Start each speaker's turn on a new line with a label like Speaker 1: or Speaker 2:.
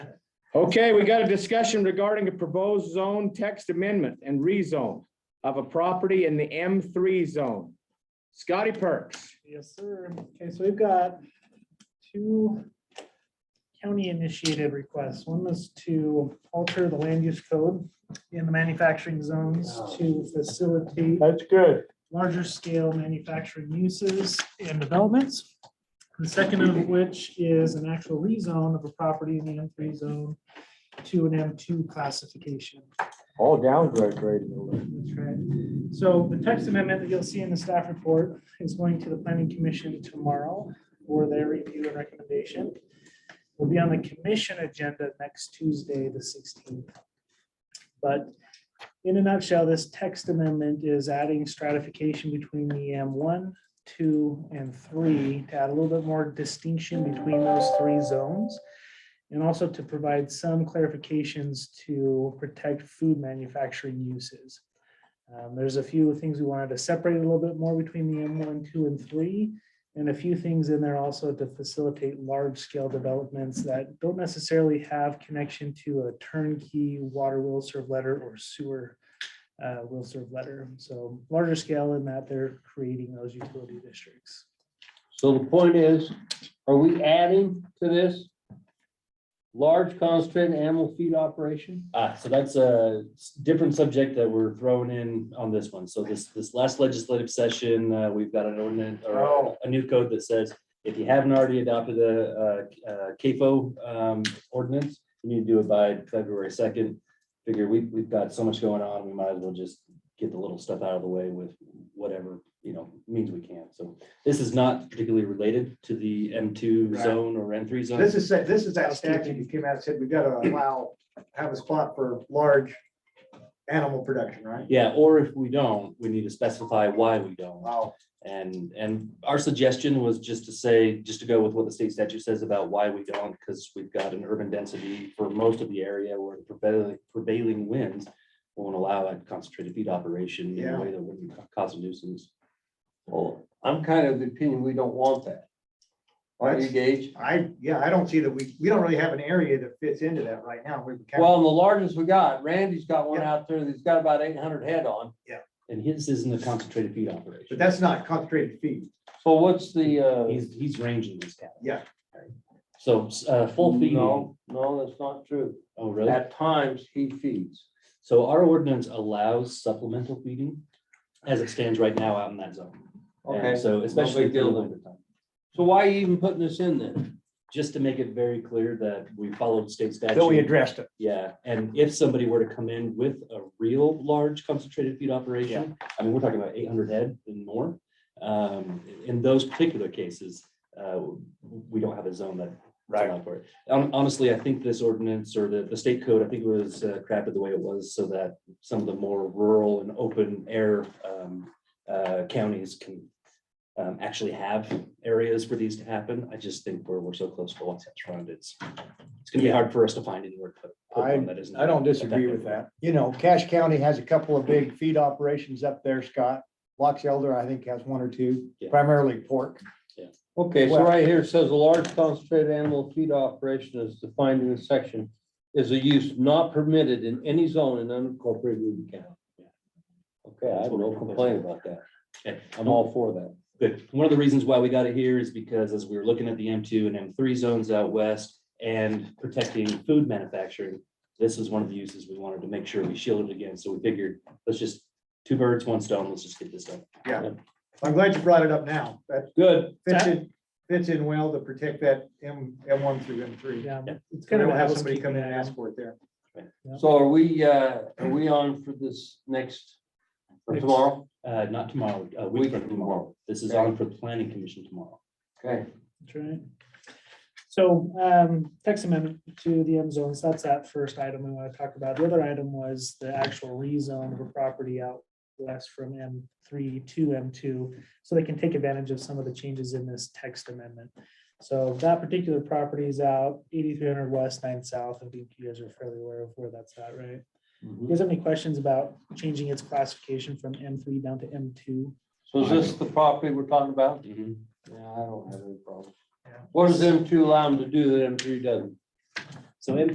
Speaker 1: Okay, we got a discussion regarding a proposed zone text amendment and rezone of a property in the M three zone. Scotty Perks,
Speaker 2: Yes, sir. Okay, so we've got two county-initiated requests. One was to alter the land use code in the manufacturing zones to facilitate
Speaker 3: That's good.
Speaker 2: larger scale manufacturing uses and developments. The second of which is an actual rezone of a property in the M three zone to an M two classification.
Speaker 3: All downgrade grading.
Speaker 2: That's right. So the text amendment that you'll see in the staff report is going to the planning commission tomorrow for their review and recommendation. Will be on the commission agenda next Tuesday, the sixteenth. But in a nutshell, this text amendment is adding stratification between the M one, two, and three to add a little bit more distinction between those three zones. And also to provide some clarifications to protect food manufacturing uses. Um, There's a few things we wanted to separate a little bit more between the M one, two, and three. And a few things in there also to facilitate large-scale developments that don't necessarily have connection to a turnkey water will serve letter or sewer uh, will serve letter. So larger scale in that they're creating those utility districts.
Speaker 4: So the point is, are we adding to this? Large concentrated animal feed operation?
Speaker 5: Ah, so that's a s- different subject that we're throwing in on this one. So this, this last legislative session, uh, we've got an ordinance or
Speaker 3: Oh.
Speaker 5: a new code that says if you haven't already adopted the, uh, uh, CAFO, um, ordinance, you need to do it by February second. Figure we, we've got so much going on, we might as well just get the little stuff out of the way with whatever, you know, means we can. So this is not particularly related to the M two
Speaker 3: Right.
Speaker 5: zone or M three zone.
Speaker 3: This is, that- this is that statute that came out and said we gotta allow, have a spot for large animal production, right?
Speaker 5: Yeah, or if we don't, we need to specify why we don't.
Speaker 3: Wow,
Speaker 5: And, and our suggestion was just to say, just to go with what the state statute says about why we don't, because we've got an urban density for most of the area where the prevailing, prevailing winds won't allow a concentrated feed operation in
Speaker 3: Yeah.
Speaker 5: a way that wouldn't ca- cause a nuisance.
Speaker 4: Well, I'm kind of the opinion we don't want that. Aren't you, Gage?
Speaker 3: I, yeah, I don't see that we, we don't really have an area that fits into that right now. We can-
Speaker 4: Well, and the largest we got, Randy's got one out there that's got about eight hundred head on.
Speaker 5: And his isn't a concentrated feed
Speaker 3: But
Speaker 5: operation.
Speaker 3: that's not concentrated feed.
Speaker 4: So what's the, uh,
Speaker 5: He's, he's ranging this cattle.
Speaker 3: Yeah.
Speaker 5: So, uh, full feeding.
Speaker 4: no, no, that's not true.
Speaker 5: Oh, really?
Speaker 4: At times he feeds.
Speaker 5: So our ordinance allows supplemental feeding as it stands right now out in that zone. And
Speaker 4: Okay,
Speaker 5: So especially
Speaker 4: big
Speaker 5: for the
Speaker 4: deal then.
Speaker 5: winter time.
Speaker 4: so why are you even putting this in then?
Speaker 5: just to make it very clear that we followed state statute.
Speaker 3: Though we addressed it.
Speaker 5: Yeah, and if somebody were to come in with a real large concentrated feed operation, I mean, we're talking about eight hundred head and more. Um, in those particular cases, uh, we don't have a zone that.
Speaker 3: Right.
Speaker 5: allowed For it. Hon- Honestly, I think this ordinance or the, the state code, I think it was uh, crafted the way it was so that some of the more rural and open air, um, uh, counties can um, actually have areas for these to happen. I just think we're, we're so close to what's surrounded. It's it's gonna be hard for us to find anywhere. to put one that isn't
Speaker 6: I don't disagree with
Speaker 5: effective.
Speaker 6: that. You know, Cache County has a couple of big feed operations up there, Scott. Box Elder, I think, has one or two,
Speaker 5: Yeah.
Speaker 6: primarily pork.
Speaker 4: Okay, so
Speaker 6: Well-
Speaker 4: right here it says a large concentrated animal feed operation as defined in this section is a use not permitted in any zone in unincorporated Ruby County. Okay, I have no complaint about that.
Speaker 5: Okay.
Speaker 4: I'm all for that.
Speaker 5: Good. One of the reasons why we got it here is because as we were looking at the M two and M three zones out west and protecting food manufacturing, this is one of the uses we wanted to make sure we shielded against. So we figured, let's just, two birds, one stone, let's just get this done.
Speaker 3: I'm glad you brought it up now. That
Speaker 4: Good.
Speaker 3: fits in, fits in well to protect that M, M one through M three.
Speaker 2: Yeah,
Speaker 5: Yep.
Speaker 2: it's
Speaker 3: We
Speaker 2: kind of
Speaker 3: don't
Speaker 2: a
Speaker 3: have somebody
Speaker 2: housekeeping.
Speaker 3: come in and
Speaker 2: item.
Speaker 3: ask for it there.
Speaker 4: So are we, uh, are we on for this next, for
Speaker 2: Next.
Speaker 4: tomorrow?
Speaker 5: Uh, not tomorrow, a week from tomorrow. This is on for the planning commission tomorrow.
Speaker 4: Okay,
Speaker 2: That's right. So um, text amendment to the M zones, that's that first item we want to talk about. The other item was the actual rezone of a property out west from M three to M two, so they can take advantage of some of the changes in this text amendment. So that particular property is out eighty-three hundred west, nine south. I think you guys are fairly aware of where that's at, right? You guys have any questions about changing its classification from M three down to M two?
Speaker 4: so is this the property we're talking about?
Speaker 6: Mm-hmm.
Speaker 5: Mhm.
Speaker 4: Yeah, I don't have any problem.
Speaker 2: Yeah.
Speaker 4: What does M two allow them to do that M three doesn't?
Speaker 5: So M